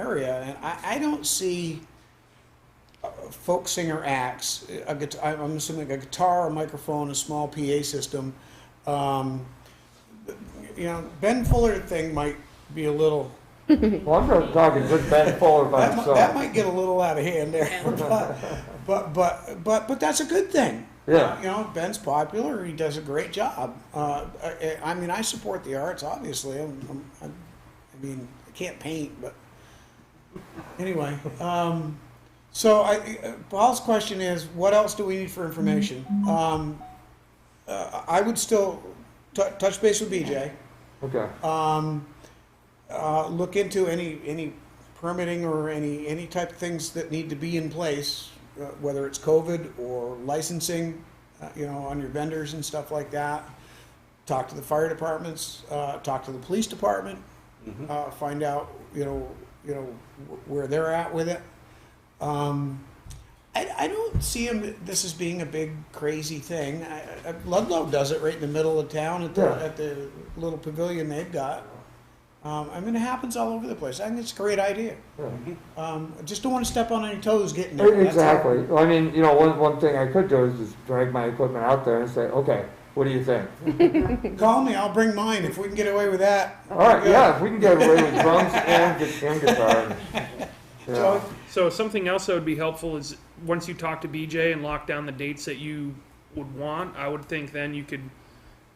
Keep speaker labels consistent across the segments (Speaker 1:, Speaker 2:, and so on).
Speaker 1: area, and I, I don't see uh, folk singer acts, a guitar, I'm assuming a guitar, a microphone, a small PA system. Um, you know, Ben Fuller thing might be a little,
Speaker 2: Well, I'm not talking just Ben Fuller by
Speaker 1: that might, that
Speaker 2: himself.
Speaker 1: might get a little out of hand there. But, but, but, but, but that's a good thing. Uh,
Speaker 2: Yeah.
Speaker 1: You know, Ben's popular, he does a great job. Uh, I, I mean, I support the arts, obviously. I'm, I'm- I'm, I mean, I can't paint, but anyway. Um, so I, uh, Paul's question is, what else do we need for information? Um, uh, I would still t- touch base with BJ.
Speaker 2: Okay,
Speaker 1: Um, uh, look into any, any permitting or any, any type of things that need to be in place, uh, whether it's COVID or licensing, uh, you know, on your vendors and stuff like that. Talk to the fire departments, uh, talk to the police department, uh, find out, you know, you know, wh- where they're at with it. Um, I, I don't see him, this as being a big crazy thing. I, I, Ludlow does it right in the middle of town at the,
Speaker 2: Yeah.
Speaker 1: at the little pavilion they've got. Um, I mean, it happens all over the place. I think it's a great idea.
Speaker 2: yeah.
Speaker 1: Um, I just don't want to step on any toes getting there. That's all.
Speaker 2: Exactly. Well, I mean, you know, one, one thing I could do is just drag my equipment out there and say, okay, what do you think?
Speaker 1: Call me, I'll bring mine if we can get away with that.
Speaker 2: All right, yeah, if we can get away with drums and, gu- and guitar.
Speaker 1: So,
Speaker 2: Yeah,
Speaker 3: So something else that would be helpful is once you talk to BJ and lock down the dates that you would want, I would think then you could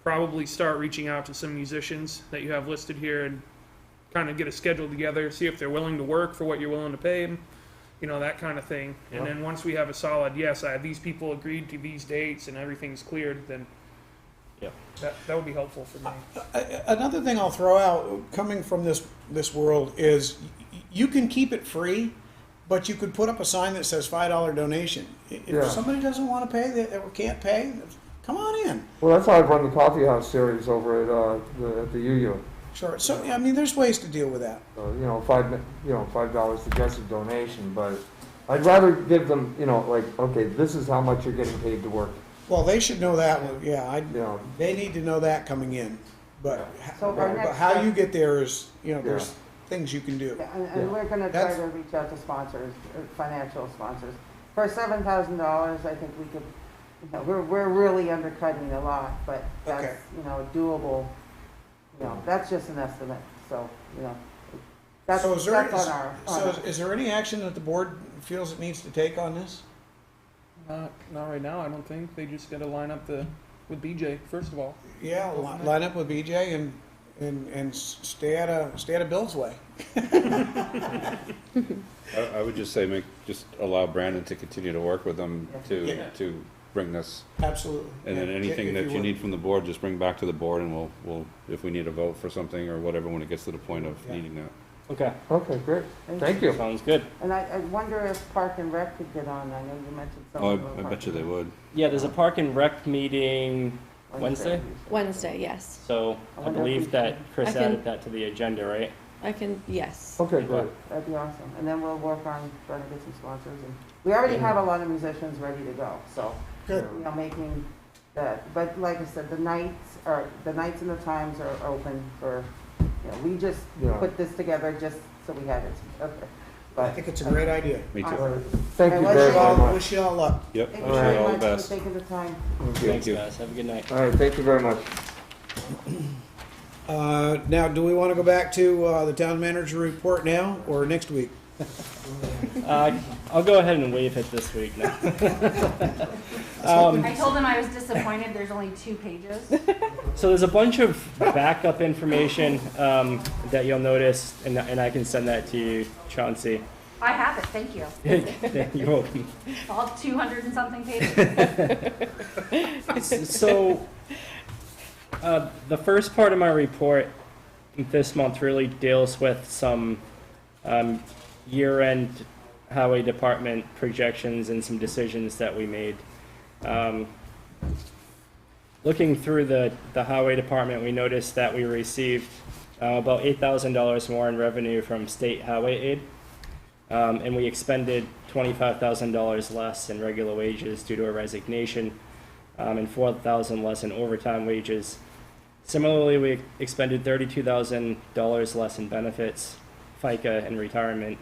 Speaker 3: probably start reaching out to some musicians that you have listed here and kind of get a schedule together, see if they're willing to work for what you're willing to pay them, you know, that kind of thing. And
Speaker 2: Yeah.
Speaker 3: then once we have a solid, yes, I these people agreed to these dates and everything's cleared, then
Speaker 4: Yep.
Speaker 3: that, that would be helpful for me.
Speaker 1: a- another thing I'll throw out, coming from this, this world, is y- you can keep it free, but you could put up a sign that says five dollar donation. I-
Speaker 2: Yeah.
Speaker 1: If somebody doesn't want to pay, they, or can't pay, come on in.
Speaker 2: Well, that's how I run the coffee house series over at, uh, the, at the UU.
Speaker 1: Sure, so, I mean, there's ways to deal with that.
Speaker 2: Uh, you know, five, mi- you know, five dollars suggested donation, but I'd rather give them, you know, like, okay, this is how much you're getting paid to work,
Speaker 1: Well, they should know that, one. yeah, I,
Speaker 2: you know.
Speaker 1: they need to know that coming in, but, h-
Speaker 5: So our
Speaker 1: but
Speaker 5: next
Speaker 1: how
Speaker 5: step-
Speaker 1: you get there is, you know, there's things you can do.
Speaker 5: Yeah, And, and
Speaker 2: Yeah.
Speaker 5: we're gonna try
Speaker 1: That's-
Speaker 5: to reach out to sponsors, uh, financial sponsors. For seven thousand dollars, I think we could, you know, we're, we're really undercutting a lot, but
Speaker 1: Okay.
Speaker 5: that's, you know, doable. You know, that's just an estimate, so, you know, that's,
Speaker 1: So is
Speaker 5: that's
Speaker 1: there- is-
Speaker 5: on our, on
Speaker 1: So
Speaker 5: our.
Speaker 1: is- is there any action that the board feels it needs to take on this?
Speaker 3: Not, not right now, I don't think. They just gotta line up the, with BJ, first of all.
Speaker 1: Yeah, li- line up with BJ and, and, and s- stay out of, stay out of Bill's way.
Speaker 4: I, I would just say make, just allow Brandon to continue to work with them
Speaker 1: Yeah.
Speaker 4: to, to bring this.
Speaker 1: Absolutely.
Speaker 4: And then
Speaker 1: Yeah,
Speaker 4: anything
Speaker 1: if
Speaker 4: that you
Speaker 1: would.
Speaker 4: need from the board, just bring back to the board and we'll, we'll, if we need a vote for something or whatever, when it gets to the point of
Speaker 1: Yeah.
Speaker 4: needing that.
Speaker 6: Okay,
Speaker 2: Okay, great. Thank you.
Speaker 6: sounds good.
Speaker 5: And I, I wonder if Park and Rec could get on, I know you mentioned
Speaker 4: Oh,
Speaker 5: something. about
Speaker 4: I, I
Speaker 5: Park
Speaker 4: bet you
Speaker 5: and
Speaker 4: they
Speaker 5: Rec.
Speaker 4: would.
Speaker 6: Yeah, there's a park and rec meeting, Wednesday?
Speaker 7: Wednesday, yes.
Speaker 6: so
Speaker 5: I
Speaker 7: Oh,
Speaker 6: I
Speaker 5: wonder if we
Speaker 6: believe that
Speaker 5: can-
Speaker 6: Chris
Speaker 7: I can-
Speaker 6: added that to the agenda, right?
Speaker 7: I can, yes.
Speaker 2: Okay, great.
Speaker 5: That'd be awesome, and then we'll work on trying to get some sponsors, and we already have a lot of musicians ready to go, so.
Speaker 1: Good.
Speaker 5: you know, making the, but like I said, the nights are, the nights and the times are open for, you know, we just
Speaker 2: Yeah.
Speaker 5: put this together just so we had it. Okay.
Speaker 1: I
Speaker 5: But
Speaker 1: think it's a great idea.
Speaker 4: Me
Speaker 2: All
Speaker 4: too.
Speaker 2: right. Thank you
Speaker 5: I
Speaker 2: very,
Speaker 5: like
Speaker 2: very much.
Speaker 1: Wish you all luck.
Speaker 4: Yep,
Speaker 5: thank
Speaker 4: wish
Speaker 5: you
Speaker 4: you
Speaker 2: Alright.
Speaker 5: very
Speaker 4: all the
Speaker 5: much for
Speaker 4: best.
Speaker 5: taking the time.
Speaker 4: Thank
Speaker 6: Thanks,
Speaker 4: you.
Speaker 6: guys, have a good night.
Speaker 2: All right, thank you very much.
Speaker 1: Uh, now, do we want to go back to, uh, the town manager report now or next week?
Speaker 6: Uh, I'll go ahead and wave it this week now. Um,
Speaker 8: I told him I was disappointed, there's only two pages.
Speaker 6: So there's a bunch of backup information um, that you'll notice, and, and I can send that to you, Chauncey.
Speaker 8: I have it, thank you.
Speaker 6: You're welcome.
Speaker 8: All two hundred and something pages.
Speaker 6: So, uh, the first part of my report this month really deals with some um, year-end highway department projections and some decisions that we made. Um, Looking through the, the highway department, we noticed that we received uh, about eight thousand dollars more in revenue from state highway aid. Um, and we expended twenty-five thousand dollars less in regular wages due to a resignation um, and four thousand less in overtime wages. Similarly, we expended thirty-two thousand dollars less in benefits, FICA and retirement